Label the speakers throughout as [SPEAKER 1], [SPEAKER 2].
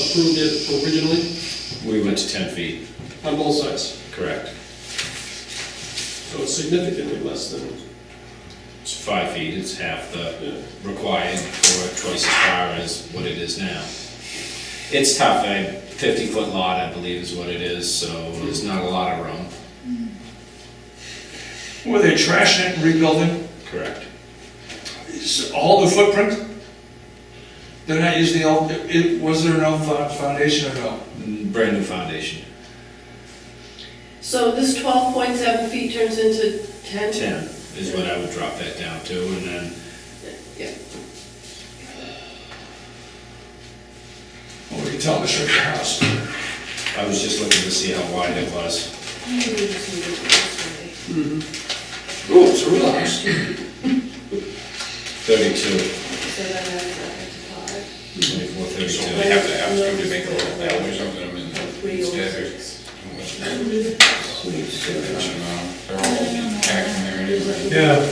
[SPEAKER 1] approved it originally
[SPEAKER 2] We went to ten feet,
[SPEAKER 1] on both sides.
[SPEAKER 2] correct.
[SPEAKER 1] So it's significantly less than,
[SPEAKER 2] It's five feet, it's half
[SPEAKER 1] Yeah.
[SPEAKER 2] the required, or twice as far as what it is now. It's tough, a fifty-foot lot, I believe, is what it is, so there's not a lot of room.
[SPEAKER 3] Were they trashing it and rebuilding?
[SPEAKER 2] Correct.
[SPEAKER 3] Is all the footprint? They're not using the old, it, was there no fo- foundation at all?
[SPEAKER 2] Brand new foundation,
[SPEAKER 4] So this twelve point seven feet turns into ten?
[SPEAKER 2] ten is what I would drop that down to, and then
[SPEAKER 4] Yeah.
[SPEAKER 3] Well, we can tell the shrink the house.
[SPEAKER 2] I was just looking to see how wide it was.
[SPEAKER 3] Oh, it's a real house.
[SPEAKER 2] Thirty-two,
[SPEAKER 4] So then that's up to five.
[SPEAKER 2] twenty-four,
[SPEAKER 5] So
[SPEAKER 2] thirty-two.
[SPEAKER 5] they have to ask him to make a little alley or something, I mean, instead of, they're all acting there anyway.
[SPEAKER 6] Yeah.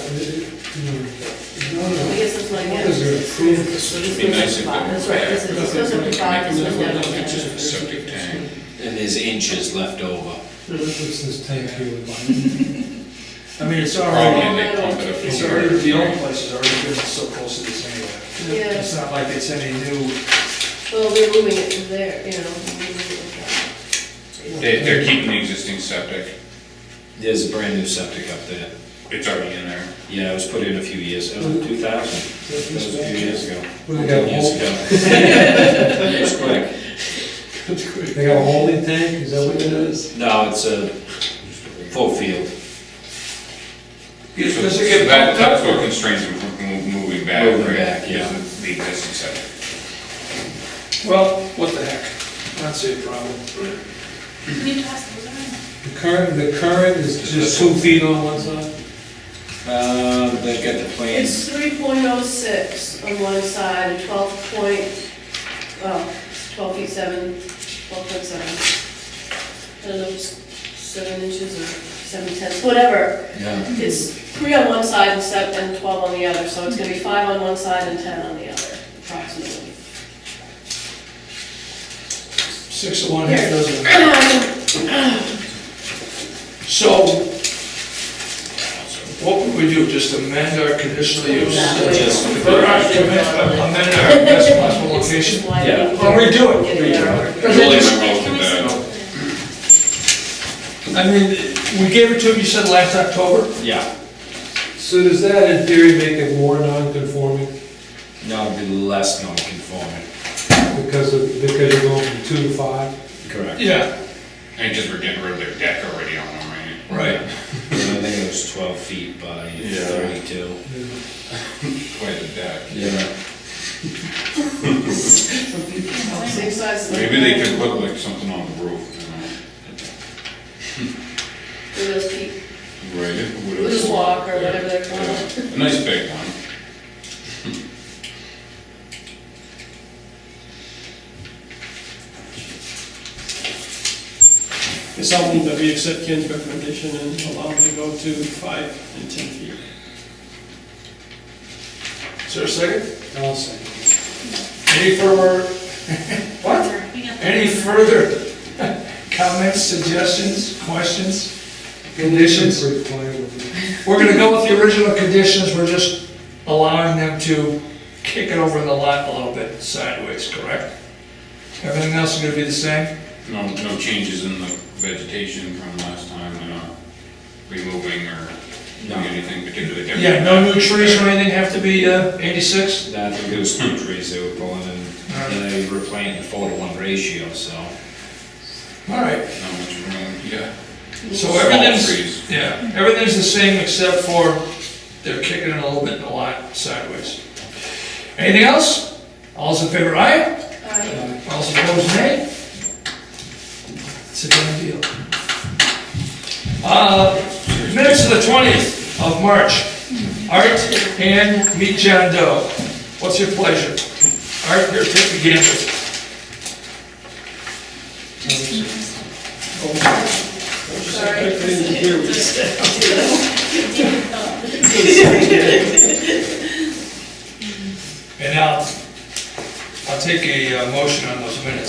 [SPEAKER 4] I guess that's my guess.
[SPEAKER 5] It'd be nice if they
[SPEAKER 4] That's right, this is, this goes up to five, this goes down to
[SPEAKER 5] It's
[SPEAKER 4] ten.
[SPEAKER 5] just a septic tank.
[SPEAKER 2] And there's inches left over.
[SPEAKER 6] What's this tank here?
[SPEAKER 3] I mean, it's
[SPEAKER 5] Probably
[SPEAKER 3] already,
[SPEAKER 5] they pump it up.
[SPEAKER 3] it's already, the old place has already been so close to this anyway.
[SPEAKER 4] Yeah.
[SPEAKER 3] It's not like it's any new,
[SPEAKER 4] Well, they're moving it to there, you know. moving it to
[SPEAKER 5] They, they're keeping the existing septic,
[SPEAKER 2] There's a brand new septic up there.
[SPEAKER 5] it's already in there.
[SPEAKER 2] Yeah, it was put in a few years, it was two thousand, that was a few years ago.
[SPEAKER 6] They got a
[SPEAKER 2] Years
[SPEAKER 6] hole,
[SPEAKER 2] ago. It was quick.
[SPEAKER 6] they got a holding tank, is that what it is?
[SPEAKER 2] No, it's a full field.
[SPEAKER 3] Does
[SPEAKER 5] So
[SPEAKER 3] it get
[SPEAKER 5] that,
[SPEAKER 3] pumped up?
[SPEAKER 5] that's what constrains them from mo- moving back,
[SPEAKER 2] Moving
[SPEAKER 5] right?
[SPEAKER 2] back, yeah.
[SPEAKER 5] Is The existing septic.
[SPEAKER 3] well, what the heck, not see a problem.
[SPEAKER 6] The current, the current is just two feet on one side?
[SPEAKER 2] Uh, they got the
[SPEAKER 4] five.
[SPEAKER 2] plans.
[SPEAKER 4] It's three point oh six on one side, and twelve point, well, twelve feet seven, twelve point seven. I don't know, it's seven inches or seven tenths, whatever.
[SPEAKER 2] Yeah.
[SPEAKER 4] It's three on one side and seven, and twelve on the other, so it's gonna be five on one side and ten on the other, approximately.
[SPEAKER 3] Six of one, half dozen of the other.
[SPEAKER 4] Um,
[SPEAKER 3] So, what would we do, just amend our conditional use?
[SPEAKER 2] Just-
[SPEAKER 3] Or not amend, but amend our best possible
[SPEAKER 4] Just
[SPEAKER 3] location?
[SPEAKER 4] why
[SPEAKER 2] Yeah.
[SPEAKER 4] we-
[SPEAKER 3] Or redo it?
[SPEAKER 4] Get it out.
[SPEAKER 5] Really, I'm open to
[SPEAKER 3] I
[SPEAKER 5] that.
[SPEAKER 3] mean, we gave it to him, you said last October?
[SPEAKER 2] Yeah,
[SPEAKER 6] So does that in theory make it more non-conforming
[SPEAKER 2] now it'd be less non-conforming.
[SPEAKER 6] because of, because you're going from two to five?
[SPEAKER 2] Correct.
[SPEAKER 3] Yeah.
[SPEAKER 5] And just we're getting rid of their deck already on them, right?
[SPEAKER 3] Right.
[SPEAKER 2] I think it was twelve feet by thirty-two.
[SPEAKER 5] Quite a deck.
[SPEAKER 2] Yeah.
[SPEAKER 4] Same size. as the-
[SPEAKER 5] Maybe they could look like something on the roof,
[SPEAKER 4] With those peak,
[SPEAKER 5] you know? Right.
[SPEAKER 4] Loose walk or whatever they're called.
[SPEAKER 5] Yeah. A nice big one.
[SPEAKER 1] it's not that we accept Ken's recommendation and allow them to go to five and 10 feet.
[SPEAKER 3] Is there a second?
[SPEAKER 6] I'll say.
[SPEAKER 3] Any further, what? Any further comments, suggestions, questions? Conditions?
[SPEAKER 6] Requirement.
[SPEAKER 3] We're gonna go with the original conditions, we're just allowing them to kick it over the lot a little bit sideways, correct? Everything else is gonna be the same?
[SPEAKER 5] No, no changes in the vegetation from last time, they're not removing or doing anything particularly different?
[SPEAKER 3] Yeah, no new trees or anything have to be uh, 86?
[SPEAKER 2] No, I think it was two trees they were pulling and and they were playing the four to one ratio, so.
[SPEAKER 3] All right,
[SPEAKER 5] Not much room, yeah.
[SPEAKER 3] so
[SPEAKER 5] Small
[SPEAKER 3] everything's,
[SPEAKER 5] trees.
[SPEAKER 3] yeah, everything's the same except for they're kicking it a little bit in the lot sideways. Anything else? All's in favor, aye?
[SPEAKER 4] Aye.
[SPEAKER 3] All's opposed, nay? It's a done deal. Uh, Minutes of the 20th of March. Art and meet John Doe. What's your pleasure? Art, here, take the gamble.
[SPEAKER 1] I
[SPEAKER 4] Sorry.
[SPEAKER 1] couldn't even hear what you said.
[SPEAKER 3] And I'll, I'll take a uh, motion on those minutes.